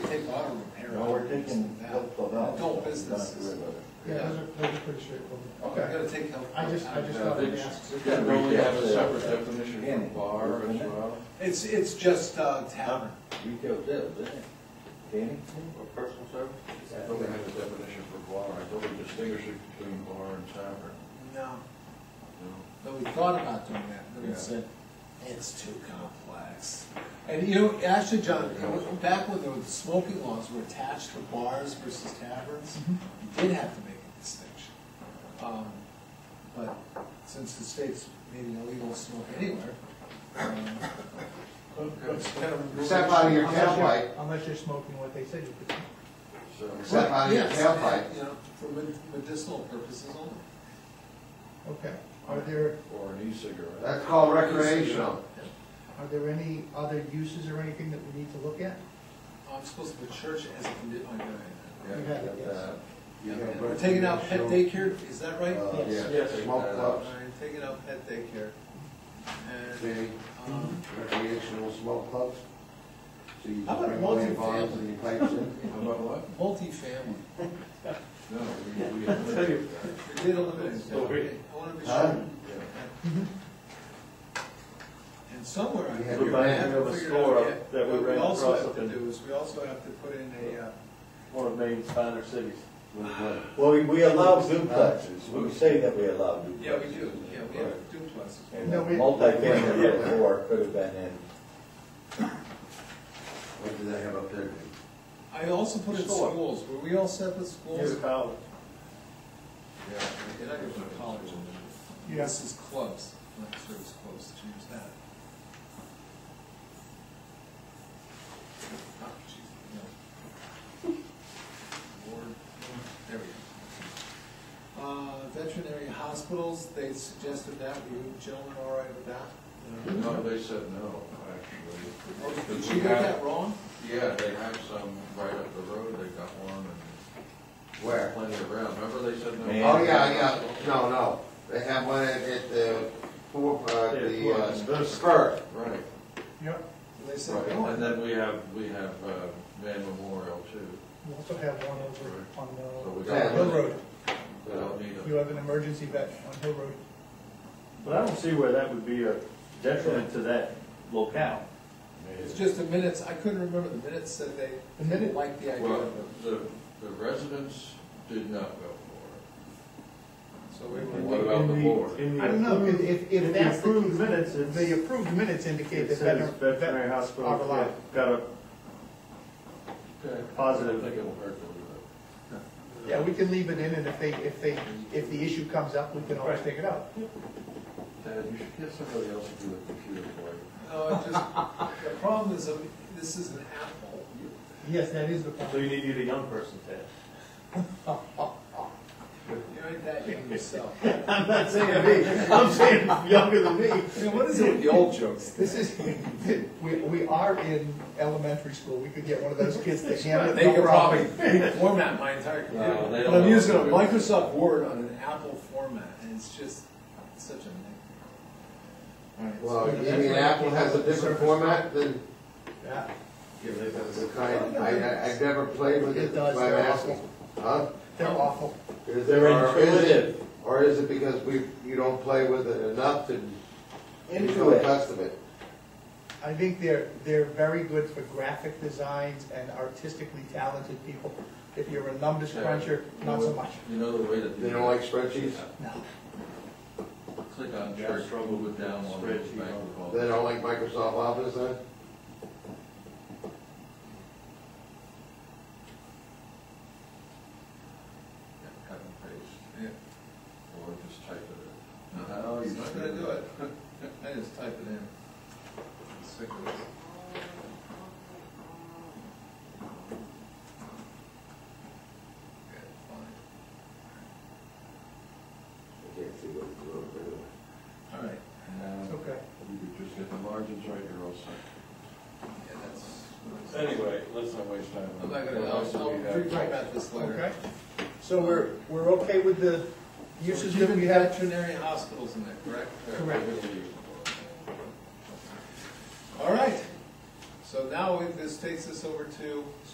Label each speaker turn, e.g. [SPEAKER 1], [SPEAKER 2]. [SPEAKER 1] taking help for that.
[SPEAKER 2] Adult businesses.
[SPEAKER 3] Yeah, those are, those are pretty straightforward.
[SPEAKER 2] I gotta take help.
[SPEAKER 3] I just, I just thought I'd ask.
[SPEAKER 4] Don't we have a separate definition for bar as well?
[SPEAKER 2] It's, it's just uh, tavern.
[SPEAKER 1] Retail sales, isn't it? Danny?
[SPEAKER 4] Or personal service? I thought we had a definition for bar, I thought we distinguished it between bar and tavern.
[SPEAKER 2] No,
[SPEAKER 4] No.
[SPEAKER 2] but we thought about doing that, but we
[SPEAKER 4] Yeah.
[SPEAKER 2] said, it's too complex. And you know, actually, John, you know, back when the smoking laws were attached to bars versus taverns,
[SPEAKER 3] Mm-hmm.
[SPEAKER 2] you did have to make a distinction. Um, But since the state's made it illegal to smoke anywhere, um, it's kind of.
[SPEAKER 5] Step out of your
[SPEAKER 3] Unless you're-
[SPEAKER 5] tailpipe,
[SPEAKER 3] Unless you're smoking what they said you could.
[SPEAKER 4] So,
[SPEAKER 5] step out of your
[SPEAKER 2] Yes,
[SPEAKER 5] tailpipe.
[SPEAKER 2] You know, for med- medicinal purposes only.
[SPEAKER 3] Okay. Are there,
[SPEAKER 4] or an e-cigarette.
[SPEAKER 5] That's called recreational.
[SPEAKER 3] are there any other uses or anything that we need to look at?
[SPEAKER 2] I'm supposed to put church as a condi- oh, yeah,
[SPEAKER 4] Yeah,
[SPEAKER 3] You had it, yes.
[SPEAKER 1] Uh,
[SPEAKER 4] that.
[SPEAKER 5] You
[SPEAKER 2] yeah.
[SPEAKER 5] have
[SPEAKER 2] We're taking out pet
[SPEAKER 5] recreational,
[SPEAKER 2] daycare, is that right?
[SPEAKER 5] uh,
[SPEAKER 2] All
[SPEAKER 3] Yes.
[SPEAKER 5] Yeah, smoke
[SPEAKER 4] Yes.
[SPEAKER 5] clubs,
[SPEAKER 2] right, taking out pet daycare. And,
[SPEAKER 5] see,
[SPEAKER 2] um,
[SPEAKER 5] recreational smoke clubs. So you
[SPEAKER 2] How about
[SPEAKER 5] bring away bombs
[SPEAKER 2] multifamily?
[SPEAKER 5] and you pipe in.
[SPEAKER 4] How about what?
[SPEAKER 2] multifamily,
[SPEAKER 4] No, we, we eliminated
[SPEAKER 2] we
[SPEAKER 4] that.
[SPEAKER 2] did eliminate that.
[SPEAKER 4] So we-
[SPEAKER 2] Okay, I wanna be
[SPEAKER 5] Huh?
[SPEAKER 2] sure.
[SPEAKER 4] Yeah.
[SPEAKER 2] And somewhere I
[SPEAKER 5] We
[SPEAKER 2] have.
[SPEAKER 5] had your
[SPEAKER 2] I haven't
[SPEAKER 6] name of a
[SPEAKER 2] figured out
[SPEAKER 6] store
[SPEAKER 2] yet,
[SPEAKER 6] that we
[SPEAKER 2] what
[SPEAKER 6] ran
[SPEAKER 2] also
[SPEAKER 6] across
[SPEAKER 2] have
[SPEAKER 6] up
[SPEAKER 2] to
[SPEAKER 6] in-
[SPEAKER 2] do is we also have to put in a, uh,
[SPEAKER 6] one of Maine's finer cities.
[SPEAKER 5] With what?
[SPEAKER 1] Well, we- we allow duplexes, we say that we allow duplexes.
[SPEAKER 2] yeah, we do, yeah, we have duplexes.
[SPEAKER 1] And
[SPEAKER 3] No, we-
[SPEAKER 1] multifamily before could have been in.
[SPEAKER 5] What do they have up there?
[SPEAKER 2] I also put in
[SPEAKER 6] Store.
[SPEAKER 2] schools, were we all set with schools?
[SPEAKER 6] college.
[SPEAKER 2] Yeah, and I go to college. in there.
[SPEAKER 3] Yeah.
[SPEAKER 2] This is clubs, not service clubs, change that. Oh, geez, no. Board, there we go. Uh, veterinary hospitals, they suggested that, were you gentlemen all right with that?
[SPEAKER 4] No, they said no, actually.
[SPEAKER 2] Oh, Did
[SPEAKER 4] Did
[SPEAKER 2] you
[SPEAKER 4] we
[SPEAKER 2] get
[SPEAKER 4] have-
[SPEAKER 2] that wrong?
[SPEAKER 4] Yeah, they have some right up the road, they got one and
[SPEAKER 5] Where?
[SPEAKER 4] plenty around, remember they said no?
[SPEAKER 1] Man.
[SPEAKER 5] Oh, yeah, yeah, no, no, they have one at, at the, for, uh, the, uh, spur.
[SPEAKER 4] Right,
[SPEAKER 3] Yep.
[SPEAKER 2] They said
[SPEAKER 4] right,
[SPEAKER 2] no.
[SPEAKER 4] Oh, and then we have, we have, uh, Man Memorial too,
[SPEAKER 3] We also have one over
[SPEAKER 4] Right. so
[SPEAKER 3] on
[SPEAKER 4] we
[SPEAKER 5] Yeah,
[SPEAKER 3] uh,
[SPEAKER 4] don't.
[SPEAKER 3] Hill Road.
[SPEAKER 4] We don't need
[SPEAKER 3] You
[SPEAKER 4] them.
[SPEAKER 3] have an emergency vet on Hill Road.
[SPEAKER 6] But I don't see where that would be a detriment to that locale.
[SPEAKER 2] It's just the minutes, I couldn't remember, the minutes said they
[SPEAKER 3] The minute-
[SPEAKER 2] liked the idea
[SPEAKER 4] Well,
[SPEAKER 2] of it,
[SPEAKER 4] the, the residents did not go for
[SPEAKER 2] so we
[SPEAKER 4] it.
[SPEAKER 2] were.
[SPEAKER 4] What about the board?
[SPEAKER 3] I don't know, if, if, if that's the.
[SPEAKER 6] approved minutes, it's-
[SPEAKER 3] The approved minutes indicate
[SPEAKER 6] It
[SPEAKER 3] that
[SPEAKER 6] says
[SPEAKER 3] veteran.
[SPEAKER 6] veterinary
[SPEAKER 3] are
[SPEAKER 6] hospital, yeah,
[SPEAKER 3] reliable.
[SPEAKER 6] got a,
[SPEAKER 4] Okay.
[SPEAKER 6] Positive.
[SPEAKER 4] I think it'll hurt a little
[SPEAKER 3] Yeah, we can leave it in, and if they, if they, if the issue comes up, we can always take it out.
[SPEAKER 4] bit. Ted, you should get somebody else to do the computer for you.
[SPEAKER 2] No, it just, the problem is, um, this is an apple.
[SPEAKER 3] Yes, that is the
[SPEAKER 6] so
[SPEAKER 3] point.
[SPEAKER 6] you need to get a young person, Ted.
[SPEAKER 2] You ain't that young yourself.
[SPEAKER 6] I'm not saying me, I'm saying younger than me.
[SPEAKER 2] You know, what is it with the old jokes?
[SPEAKER 3] This is, we, we are in elementary school, we could get one of those kids to hand it.
[SPEAKER 2] They could probably format my entire
[SPEAKER 4] No,
[SPEAKER 2] computer.
[SPEAKER 4] they don't
[SPEAKER 2] But I'm
[SPEAKER 4] know.
[SPEAKER 2] using a Microsoft Word on an apple format, and it's just such a nightmare. All
[SPEAKER 5] Well,
[SPEAKER 2] right, so-
[SPEAKER 5] you mean Apple has a different format than the kind, I, I- I've never played with
[SPEAKER 3] It
[SPEAKER 5] it,
[SPEAKER 3] does,
[SPEAKER 5] but I'm
[SPEAKER 3] they're
[SPEAKER 5] asking. Huh?
[SPEAKER 3] They're awful.
[SPEAKER 5] Is
[SPEAKER 1] They're
[SPEAKER 5] there- or is it-
[SPEAKER 1] intuitive.
[SPEAKER 5] Or is it because we, you don't play with it enough to become
[SPEAKER 1] Intuit.
[SPEAKER 5] accustomed to it?
[SPEAKER 3] I think they're, they're very good for graphic designs and artistically talented people. If you're a numbers
[SPEAKER 4] Yeah.
[SPEAKER 3] cruncher, not so much.
[SPEAKER 4] You know the way to do
[SPEAKER 5] They don't
[SPEAKER 4] that?
[SPEAKER 5] like spreadsheets,
[SPEAKER 3] No.
[SPEAKER 4] Click on
[SPEAKER 6] Yeah,
[SPEAKER 4] church,
[SPEAKER 6] struggle
[SPEAKER 4] move
[SPEAKER 6] with
[SPEAKER 4] it down one,
[SPEAKER 6] spreadsheet.
[SPEAKER 4] back to the wall.
[SPEAKER 5] they don't like Microsoft Office, huh?
[SPEAKER 4] Yeah, cut and paste,
[SPEAKER 2] Yeah.
[SPEAKER 4] or just type it in.
[SPEAKER 2] No,
[SPEAKER 6] Oh,
[SPEAKER 2] he's not gonna do it. I just type it in. I'm Sick of it. Okay, fine.
[SPEAKER 5] I can't see what it's doing, but anyway.
[SPEAKER 2] All right,
[SPEAKER 4] Now,
[SPEAKER 3] Okay.
[SPEAKER 4] you could just get the margins right, you're all set.
[SPEAKER 2] yeah, that's.
[SPEAKER 4] Anyway, let's not waste time.
[SPEAKER 2] I'm not gonna, I'll, I'll rewrite about this
[SPEAKER 3] Okay.
[SPEAKER 2] later.
[SPEAKER 3] So we're, we're okay with the uses that we have?
[SPEAKER 2] Veterinary hospitals in there, correct?
[SPEAKER 3] Correct.
[SPEAKER 2] All right, so now we- this takes us over to